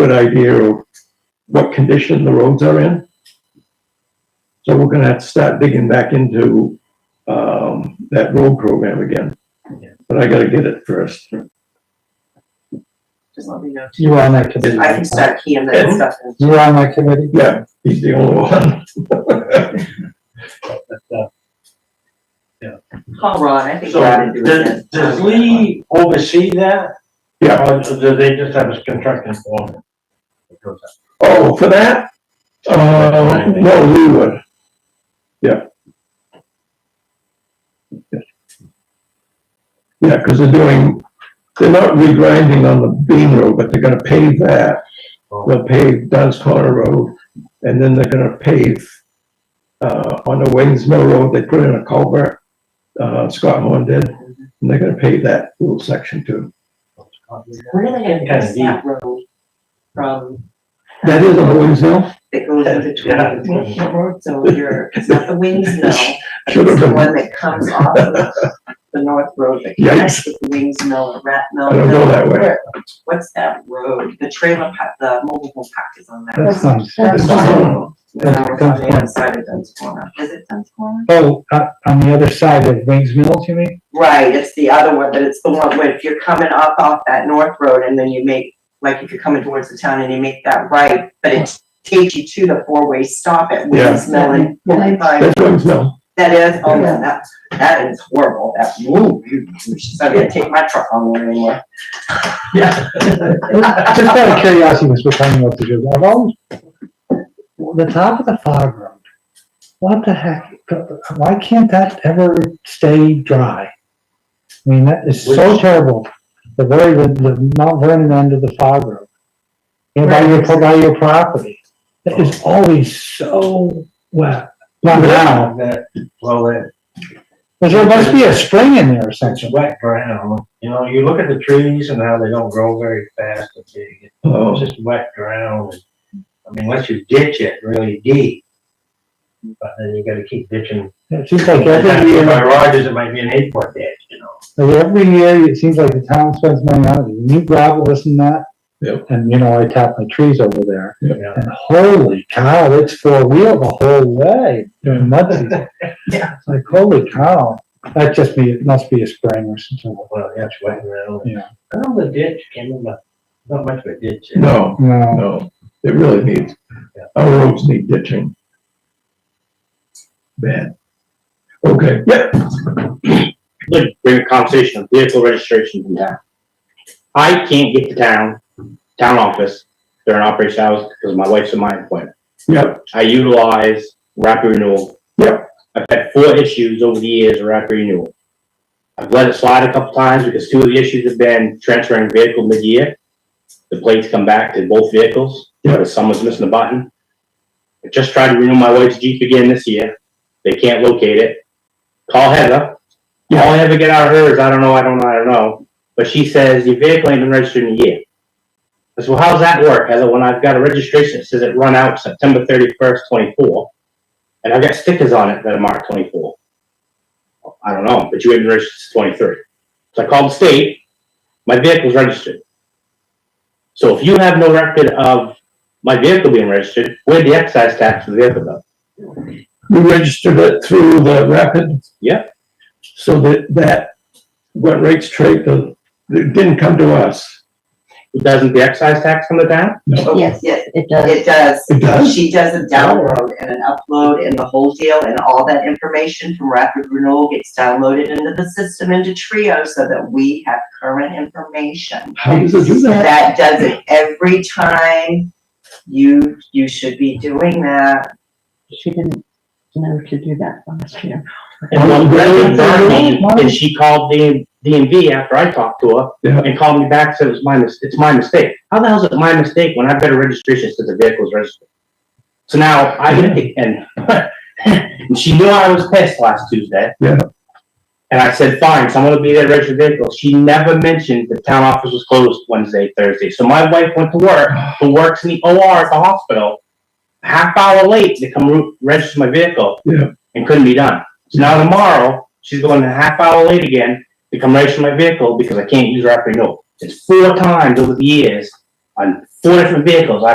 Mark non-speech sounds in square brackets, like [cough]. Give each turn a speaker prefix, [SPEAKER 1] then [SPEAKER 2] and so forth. [SPEAKER 1] good idea of what condition the roads are in. So we're gonna have to start digging back into, um, that road program again.
[SPEAKER 2] Yeah.
[SPEAKER 1] But I gotta get it first.
[SPEAKER 3] Just let me know.
[SPEAKER 2] You were on that committee.
[SPEAKER 3] I can start keying that
[SPEAKER 1] Yeah.
[SPEAKER 3] stuff in.
[SPEAKER 2] You were on that committee?
[SPEAKER 1] Yeah, he's the only one. [laughs]
[SPEAKER 3] Call Ron, I think
[SPEAKER 4] So,
[SPEAKER 3] Ron would do it.
[SPEAKER 4] does,
[SPEAKER 3] then.
[SPEAKER 4] does Lee oversee that?
[SPEAKER 1] Yeah.
[SPEAKER 4] Or do they just have a contracting form?
[SPEAKER 1] Oh, for that? Uh, no, we would. Yeah. Yeah, because they're doing, they're not regrinding on the Bean Road, but they're gonna pave that. They'll pave Dunn's Corner Road, and then they're gonna pave, uh, on the Wayne's Mill Road, they put in a culvert, uh, Scott Horn did, and they're gonna pave that little section too.
[SPEAKER 3] We're gonna get
[SPEAKER 4] Kinda
[SPEAKER 3] past that road from,
[SPEAKER 1] That is on Wayne's Mill?
[SPEAKER 3] that goes into
[SPEAKER 4] Yeah.
[SPEAKER 3] Twin Hill Road, so you're, it's not
[SPEAKER 4] [laughs]
[SPEAKER 3] the wings mill.
[SPEAKER 1] Should have
[SPEAKER 3] It's the
[SPEAKER 1] been.
[SPEAKER 3] one that comes off of the north road that connects
[SPEAKER 1] Yikes.
[SPEAKER 3] with the wings mill and rat mill.
[SPEAKER 1] I don't go that way.
[SPEAKER 3] What's that road? The trailer park, the mobile home park is on that.
[SPEAKER 2] That's not,
[SPEAKER 3] That's
[SPEAKER 2] that's not,
[SPEAKER 3] on the other side of Dunn's Corner. Is it Dunn's Corner?
[SPEAKER 2] oh, uh, on the other side of Wings Mills, you mean?
[SPEAKER 3] Right, it's the other one, but it's the one where if you're coming up off that north road and then you make, like if you're coming towards the town and you make that right, but it takes you to the four-way stop
[SPEAKER 1] Yeah.
[SPEAKER 3] at Williams Mill and forty-five.
[SPEAKER 1] That's Wayne's Mill.
[SPEAKER 3] That is, oh, yeah, that, that is horrible, that, ooh, you- she's not gonna take my truck on there anymore.
[SPEAKER 2] Just out of curiosity, was we're talking about the job, I've always, the top of the fog road, what the heck, why can't that ever stay dry? I mean, that is so
[SPEAKER 4] Which-
[SPEAKER 2] terrible, the very, the- the Mount Vernon end of the fog road. And by your, by your property, it is always so wet, not now,
[SPEAKER 4] That, well, that,
[SPEAKER 2] but there must be a spring in there or
[SPEAKER 4] that's
[SPEAKER 2] something.
[SPEAKER 4] wet ground, you know, you look at the trees and how they don't grow very fast and big,
[SPEAKER 1] Oh.
[SPEAKER 4] it's just wet ground. I mean, unless you ditch it really deep, but then you gotta keep ditching.
[SPEAKER 2] It seems like every year.
[SPEAKER 4] My Rogers, it might be an eight foot ditch, you know.
[SPEAKER 2] Like every year, it seems like the town spends money on it, new gravel, this and that.
[SPEAKER 1] Yep.
[SPEAKER 2] And, you know, I tap my trees over there,
[SPEAKER 1] Yep.
[SPEAKER 4] Yeah.
[SPEAKER 2] and holy cow, it's four wheel the whole way during mud season.
[SPEAKER 3] Yeah.
[SPEAKER 2] It's Like, holy cow, that just be, it must be a spring or something,
[SPEAKER 4] Well, that's wet ground.
[SPEAKER 2] Yeah.
[SPEAKER 4] I don't know the ditch, can't remember, not much of a ditch.
[SPEAKER 1] No,
[SPEAKER 2] you know,
[SPEAKER 1] no, it really needs, our roads need ditching. Bad. Okay, yeah,
[SPEAKER 5] like bring a conversation of vehicle registration from town. I can't get to town, town office during operation hours because my wife's in my employment.
[SPEAKER 1] yeah,
[SPEAKER 5] I utilize rapid renewal.
[SPEAKER 1] Yep.
[SPEAKER 5] I've had four issues over the years of rapid renewal. I've let it slide a couple times because two of the issues have been transferring vehicle mid-year. The plates come back to both vehicles,
[SPEAKER 1] Yep.
[SPEAKER 5] because someone's missing a button. I just tried to renew my wife's Jeep again this year. They can't locate it. Call Heather.
[SPEAKER 1] Yeah.
[SPEAKER 5] All I ever get out of her is, I don't know, I don't know, I don't know. But she says, your vehicle ain't been registered in a year. I said, well, how's that work? I said, when I've got a registration that says it run out September thirty-first, twenty-four, and I've got stickers on it that are marked twenty-four. I don't know, but you ain't been registered since twenty-three. So I called the state, my vehicle's registered. So if you have no record of my vehicle being registered, where'd the excise tax for the vehicle go?
[SPEAKER 1] we registered it through the rapid.
[SPEAKER 5] Yeah.
[SPEAKER 1] So that, that, what rates trade, the, it didn't come to us.
[SPEAKER 5] Doesn't the excise tax come to town?
[SPEAKER 1] No,
[SPEAKER 3] Yes, yes,
[SPEAKER 6] It does.
[SPEAKER 3] it does.
[SPEAKER 1] It does?
[SPEAKER 3] She does a download and an upload and the whole deal and all that information from Rapid Renewal gets downloaded into the system into Trio so that we have current information.
[SPEAKER 1] How does it do that?
[SPEAKER 3] That does it every time. You, you should be doing that.
[SPEAKER 6] She didn't know to do that last year.
[SPEAKER 5] And
[SPEAKER 1] Oh,
[SPEAKER 5] one
[SPEAKER 1] really?
[SPEAKER 5] resident burned me,
[SPEAKER 2] Why?
[SPEAKER 5] and she called the DMV after I talked to her.
[SPEAKER 1] Yeah.
[SPEAKER 5] And called me back, and said it was my mis- it's my mistake. How the hell is it my mistake when I've got a registration since the vehicle's registered? So now I get it, [laughs] and, and she knew I was pissed last Tuesday.
[SPEAKER 1] Yeah.
[SPEAKER 5] And I said, fine, someone will be there to register the vehicle. She never mentioned the town office was closed Wednesday, Thursday. So my wife went to work, who works in the OR at the hospital, half hour late to come re- register my vehicle.
[SPEAKER 1] Yeah.
[SPEAKER 5] And couldn't be done. So now tomorrow, she's going a half hour late again to come register my vehicle because I can't use rapid renewal. It's four times over the years on four different vehicles.